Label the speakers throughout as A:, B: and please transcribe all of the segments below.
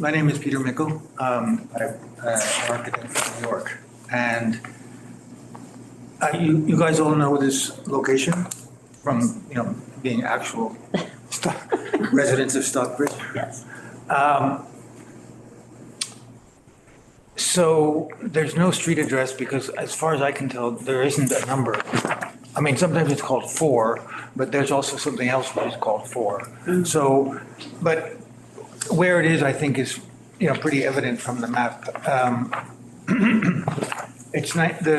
A: My name is Peter Mickle. Um, I'm an architect from New York. And uh, you, you guys all know this location from, you know, being actual Sto- residents of Stockbridge.
B: Yes.
A: Um, So there's no street address because as far as I can tell, there isn't a number. I mean, sometimes it's called four, but there's also something else which is called four. So, but where it is, I think is, you know, pretty evident from the map. Um, It's not, the,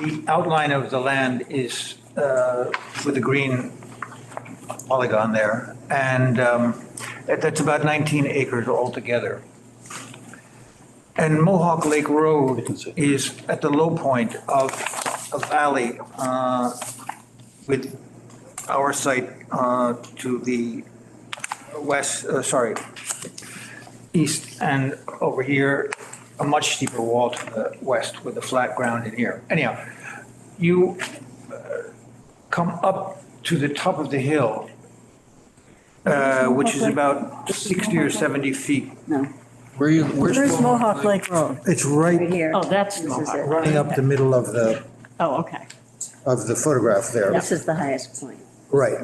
A: the outline of the land is uh, with the green polygon there, and um, that- that's about 19 acres altogether. And Mohawk Lake Road is at the low point of a valley uh, with our site uh, to the west, uh, sorry, east, and over here, a much steeper wall to the west with the flat ground in here. Anyhow, you uh, come up to the top of the hill, uh, which is about 60 or 70 feet
B: No.
C: Where you, where's
D: Where's
C: Mohawk?
D: Mohawk Lake Road?
E: It's
B: Right
E: right,
B: here.
D: Oh, that's
B: This is
D: Mohawk.
B: it.
E: running up the middle of the,
D: Oh, okay.
E: of the photograph there.
B: This is the highest point.
E: Right.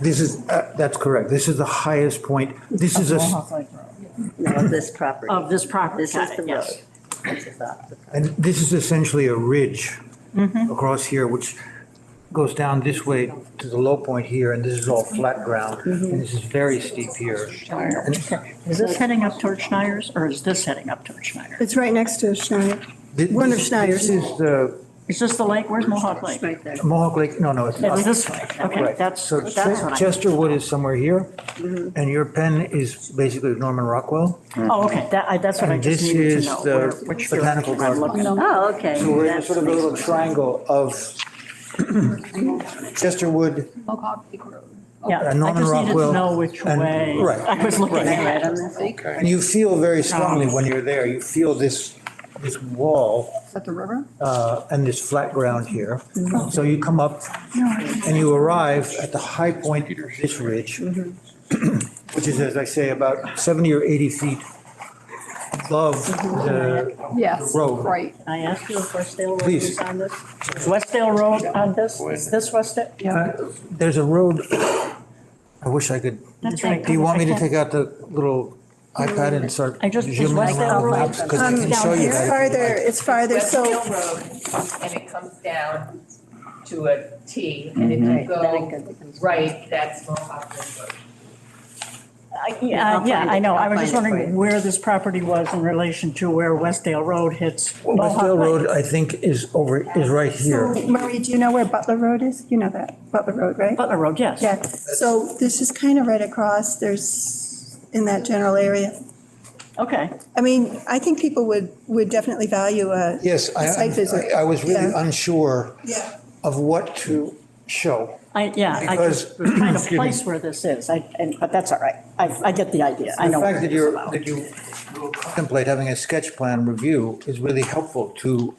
E: This is, uh, that's correct. This is the highest point. This is a,
D: Mohawk Lake Road.
B: No, of this property.
D: Of this property.
B: This is
D: Got
B: the
D: it, yes.
B: road. This is off the-
E: and this is essentially a ridge
D: Mm-hmm.
E: across here, which
A: goes down this way to the low point here, and this is all flat ground,
D: Mm-hmm.
A: and this is very steep here.
D: Is this heading up toward Schneider's or is this heading up toward Schneider?
F: It's right next to Schneider.
A: Thi-
F: One of
A: this-
F: Schneider's.
A: This is the
D: Is this the lake? Where's Mohawk Lake? Oh,
B: Right there.
A: Mohawk Lake, no, no, it's
D: It's
A: not.
D: this way. Okay,
A: Right.
D: that's,
A: So
D: that's what I. Mm-hmm.
A: Chesterwood is somewhere here, and your pen is basically Norman Rockwell.
D: Oh, okay, that, I, that's what I
A: And
D: just
A: this
D: needed
A: is
D: to know.
A: the
D: where- which
A: botanical
D: direction
A: garden.
D: I'm looking.
B: Oh, okay.
A: So we're in a
B: That's
A: sort of a
B: nice.
A: little triangle of Chesterwood,
G: Mohawk Lake Road.
D: Yeah,
A: Uh, Norman
D: I just needed
A: Rockwell
D: to know which
A: and-
D: way.
A: right,
D: I was looking
B: Is that
D: at
B: right
D: it.
B: on this?
A: and you feel very
D: Oh.
A: strongly when you're there, you feel this, this wall
G: Is that the river?
A: uh, and this flat ground here.
D: Mm-hmm.
A: So you come up and you arrive at the high point of this ridge,
D: Mm-hmm.
A: which is, as I say, about 70 or 80 feet above
D: Mm-hmm.
A: the
G: Yes,
A: Road.
G: right.
D: Can I asked you if Westdale Road
A: Please.
D: is on this? Is Westdale Road on this? Is this Westdale?
A: Uh, There's a road, I wish I could,
D: That's
A: do
D: right.
A: you want me to
D: I
A: take out the little iPad and start
D: I just-
A: zooming
D: it's
A: around
D: like-
A: maps? Because I
F: Um,
A: can show you
F: It's
A: that.
F: farther, it's farther, so,
H: West Hill Road, and it comes down to a T, and if you
B: Right, then
H: go
B: it goes-
H: right, that's Mohawk Ridge Road.
D: Uh,
B: Yeah,
D: Yeah,
B: I'll
D: yeah,
B: find
D: I
B: it.
D: know. I
B: I'll
D: was just
B: find it for
D: wondering
B: you.
D: where this property was in relation to where Westdale Road hits.
A: Westdale
D: Mohawk Lake.
A: Road, I think, is over, is right here.
F: Marie, do you know where Butler Road is? You know that, Butler Road, right?
D: Butler Road, yes.
F: Yeah, so this is kind of right across, there's, in that general area.
D: Okay.
F: I mean, I think people would, would definitely value a,
A: Yes, I,
F: Site visit.
A: I- I was really
F: Yeah.
A: unsure
F: yeah,
A: of what to show.
D: I, yeah, I just was trying to place where this is, I, and, but that's all right. I, I get the idea, I know.
A: The fact
D: what
A: that
D: it is
A: you're,
D: about.
A: that you will contemplate having a sketch plan review is really helpful to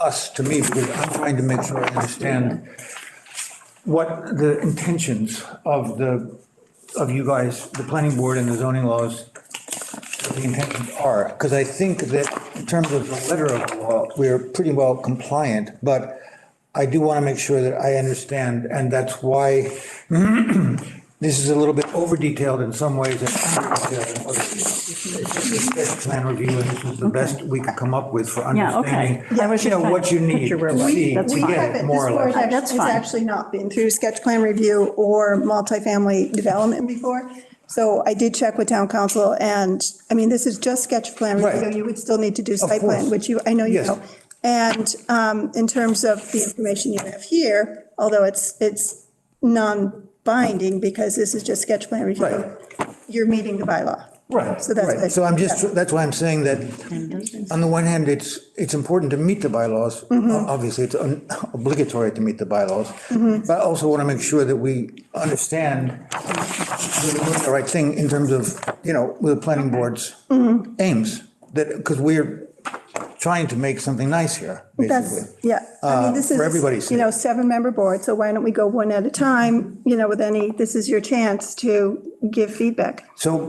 A: us, to me, because I'm trying to make sure I understand what the intentions of the, of you guys, the planning board and the zoning laws, what the intentions are. Because I think that in terms of the letter of the law, we're pretty well compliant, but I do want to make sure that I understand, and that's why this is a little bit over detailed in some ways and under detailed in others. This Plan review, and this is the best we could come up with for
D: Yeah, okay.
A: understanding,
D: I was
A: you know,
D: just trying
A: what
D: to
A: you need
D: picture where it
A: to
D: was.
A: see,
D: That's
A: to
D: fine.
A: get it, more or less.
D: Uh, that's
F: This board
D: fine.
F: has actually not been through sketch plan review or multifamily development before. So I did check with town council and, I mean, this is just sketch plan
A: Right.
F: review. You would still need to do site
A: course.
F: plan, which you, I know you
A: Yes.
F: know. And um, in terms of the information you have here, although it's, it's non-binding because this is just sketch plan
A: Right.
F: review, you're meeting the bylaw.
A: Right,
F: So that's
A: right.
F: why-
A: So I'm just, that's why I'm saying that, on the one hand, it's, it's important to meet the bylaws.
F: Mm-hmm.
A: Obviously, it's un- obligatory to meet the bylaws.
F: Mm-hmm.
A: But I also want to make sure that we understand that we're doing the right thing in terms of, you know, the planning board's
F: Mm-hmm.
A: aims. That, because we're trying to make something nice here, basically.
F: That's, yeah, I
A: Uh,
F: mean, this
A: for everybody's
F: is,
A: sake.
F: you know, seven-member board, so why don't we go one at a time, you know, with any, this is your chance to give feedback.
A: So